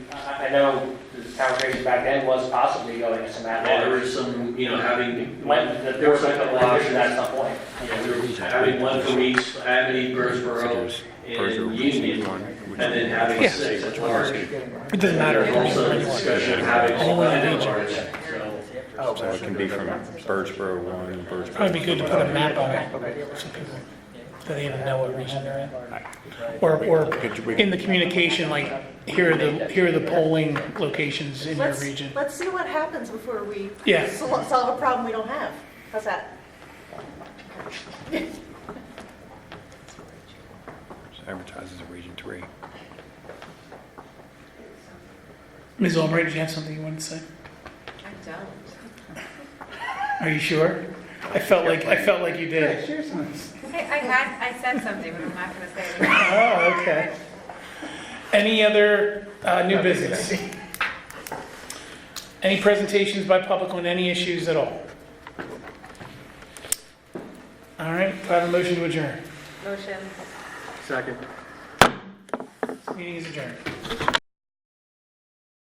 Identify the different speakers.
Speaker 1: I know the conversation back then was possibly going to some
Speaker 2: There
Speaker 1: at-large.
Speaker 2: was some, you know, having.
Speaker 1: When, the- there was a couple of issues at some point.
Speaker 2: Yeah, we were having one from each, Amity, Birdsboro, and Union, and then having six at large.
Speaker 3: It doesn't matter.
Speaker 2: There's also a discussion of having all
Speaker 3: Anyone in
Speaker 2: nine at
Speaker 3: each.
Speaker 2: large, so.
Speaker 4: So it uh, can be from Birdsboro one, Birdsboro.
Speaker 3: Probably be good to put a map on it, so people, so they even know what region they're in. Or, or in the communication, like, here are the, here are the polling locations in your
Speaker 5: Let's-
Speaker 3: region.
Speaker 5: Let's see what happens before we
Speaker 3: Yeah.
Speaker 5: sol- solve a problem we don't have. How's that?
Speaker 4: Advertises in Region Three.
Speaker 3: Ms. Albright, did you have something you wanted to say?
Speaker 5: I don't.
Speaker 3: Are you sure? I felt like, I felt like you did.
Speaker 6: I, I had, I said something, but I'm not gonna say it.
Speaker 3: Oh, okay. Any other, uh, new business? Any presentations by public on any issues at all? All right, do I have a motion to adjourn?
Speaker 6: Motion.
Speaker 3: Meeting is adjourned.